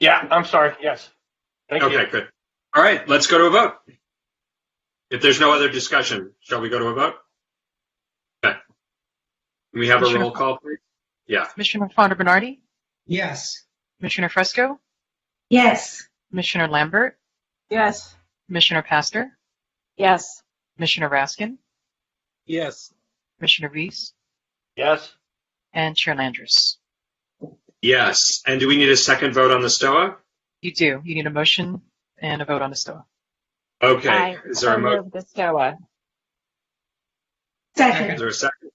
Yeah, I'm sorry. Yes. Thank you. Okay, good. All right, let's go to a vote. If there's no other discussion, shall we go to a vote? Okay. Can we have a Commissioner- roll call, please? Commissioner Fonda Bernardi, Yes. Commissioner Fresco, Yes. Commissioner Lambert, Yes. Commissioner Pastor, Yes. Commissioner Raskin, Yes. Commissioner Reese, Yes. and Chair Landris. Yes. And do we need a second vote on the STOA? You do. You need a motion and a vote on Estoa. Okay. Is there a mo, the STOA. is Second. there a second?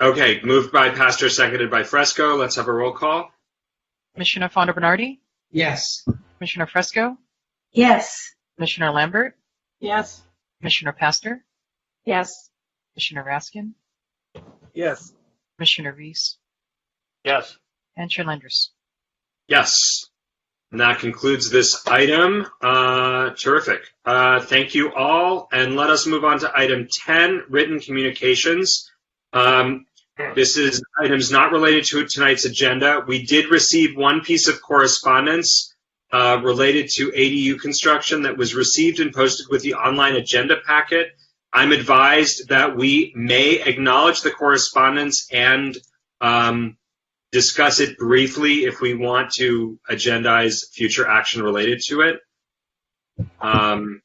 Okay, moved by Pastor, seconded by Fresco. Let's have a roll call. Commissioner Fonda Bernardi, Yes. Commissioner Fresco, Yes. Commissioner Lambert, Yes. Commissioner Pastor, Yes. Commissioner Raskin, Yes. Commissioner Reese, Yes. and Chair Landris. Yes. And that concludes this item. Uh, terrific. Uh, thank you all. And let us move on to item 10, written communications. Um, this is items not related to tonight's agenda. We did receive one piece of correspondence uh, related to ADU construction that was received and posted with the online agenda packet. I'm advised that we may acknowledge the correspondence and um, discuss it briefly if we want to agendize future action related to it. Um,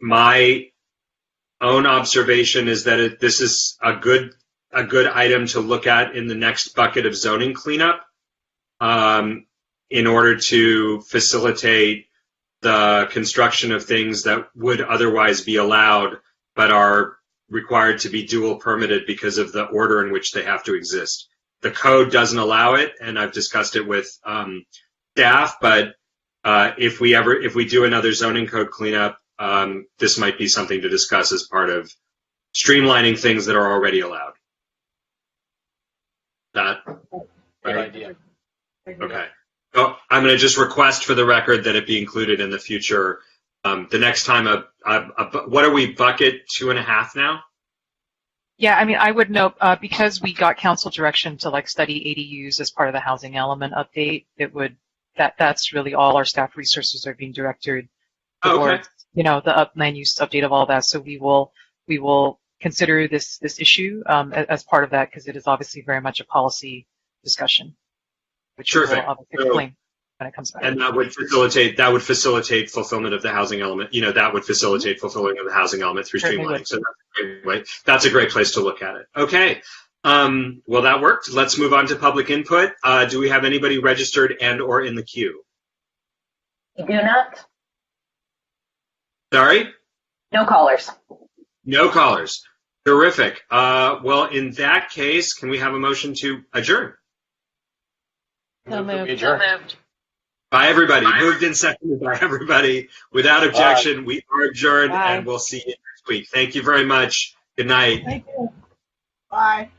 my own observation is that it, this is a good a good item to look at in the next bucket of zoning cleanup um, in order to facilitate the construction of things that would otherwise be allowed but are required to be dual permitted because of the order in which they have to exist. The code doesn't allow it, and I've discussed it with um, staff. But uh, if we ever, if we do another zoning code cleanup, um, this might be something to discuss as part of streamlining things that are already allowed. That Good Right. idea. Okay. So I'm going to just request for the record that it be included in the future. Um, the next time, a, a, a bu- what are we bucket two and a half now? Yeah, I mean, I would note, uh, because we got council direction to like study ADUs as part of the housing element update, it would, that, that's really all our staff resources are being directed towards, you know, the up land use update of all that. So we will, we will consider this, this issue, um, a- as part of that, because it is obviously very much a policy discussion. Which we Sure will thing. obviously So- explain when it comes back. And that would facilitate, that would facilitate fulfillment of the housing element, you know, that would facilitate fulfilling of the housing element through Certainly would. streamlining. So that's a great way, that's a great place to look at it. Okay. Um, well, that worked. Let's move on to public input. Uh, do we have anybody registered and or in the queue? We do not. Sorry? No callers. No callers. Terrific. Uh, well, in that case, can we have a motion to adjourn? So Move that we moved. adjourn. By everybody, moved and seconded by everybody. Without objection, we are adjourned Bye. and we'll see you next week. Thank you very much. Good night. Bye.